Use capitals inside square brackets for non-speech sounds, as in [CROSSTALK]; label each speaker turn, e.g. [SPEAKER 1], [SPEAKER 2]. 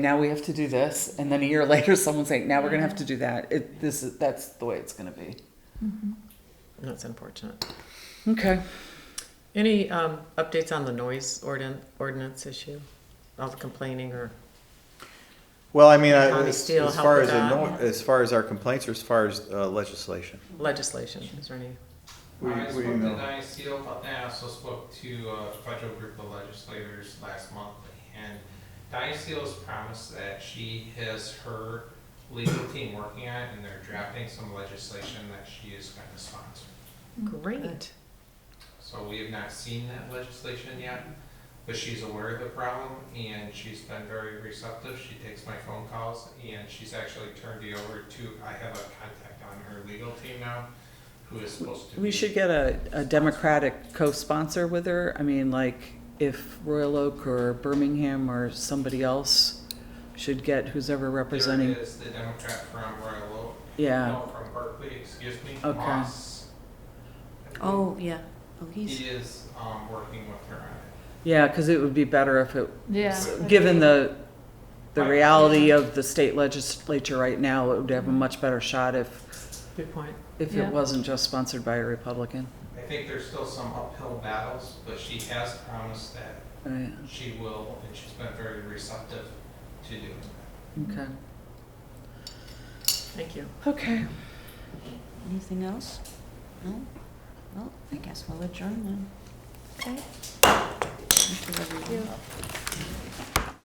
[SPEAKER 1] now we have to do this, and then a year [LAUGHS] later, someone's saying, now we're gonna have to do that. It, this is, that's the way it's gonna be.
[SPEAKER 2] That's unfortunate.
[SPEAKER 1] Okay.
[SPEAKER 2] Any um, updates on the noise ordin- ordinance issue? All the complaining or,
[SPEAKER 3] Well, I mean, I-
[SPEAKER 2] Tommy
[SPEAKER 3] as
[SPEAKER 2] Steele
[SPEAKER 3] as
[SPEAKER 2] help
[SPEAKER 3] far
[SPEAKER 2] with
[SPEAKER 3] as, a
[SPEAKER 2] that.
[SPEAKER 3] no- as far as our complaints, or as far as uh, legislation?
[SPEAKER 2] legislation, is there any?
[SPEAKER 3] We-
[SPEAKER 4] I
[SPEAKER 3] we
[SPEAKER 4] spoke to
[SPEAKER 3] know.
[SPEAKER 4] Diane Steele, but then I also spoke to uh, a federal group of legislators last month. And Diane Steele has promised that she has her legal team working on it and they're drafting some legislation that she is going to sponsor.
[SPEAKER 5] Mm.
[SPEAKER 2] Great.
[SPEAKER 4] So we have not seen that legislation yet, but she's aware of the problem and she's been very receptive. She takes my phone calls and she's actually turned me over to, I have a contact on her legal team now who is supposed to be.
[SPEAKER 1] We should get a, a Democratic co-sponsor with her. I mean, like, if Royal Oak or Birmingham or somebody else should get who's ever representing.
[SPEAKER 4] There is the Democrat from Royal Oak.
[SPEAKER 1] Yeah,
[SPEAKER 4] No, Oh, from Berkeley, excuse me.
[SPEAKER 1] Okay.
[SPEAKER 4] Moss.
[SPEAKER 5] Oh, yeah. Oh, he's.
[SPEAKER 4] He is, um, working with her on
[SPEAKER 1] yeah, because it would be better if it,
[SPEAKER 6] Yeah.
[SPEAKER 1] s- given the, the reality of the state legislature right now, it would have a much better shot if,
[SPEAKER 2] Good point.
[SPEAKER 1] if
[SPEAKER 6] Yeah.
[SPEAKER 1] it wasn't just sponsored by a Republican.
[SPEAKER 4] it. I think there's still some uphill battles, but she has promised that
[SPEAKER 1] Right,
[SPEAKER 4] she will, and she's been very receptive to doing that.
[SPEAKER 1] okay.
[SPEAKER 2] Thank you.
[SPEAKER 1] Okay.
[SPEAKER 5] Anything else? No? Well, I guess we'll adjourn then. Okay. Thank you, everyone.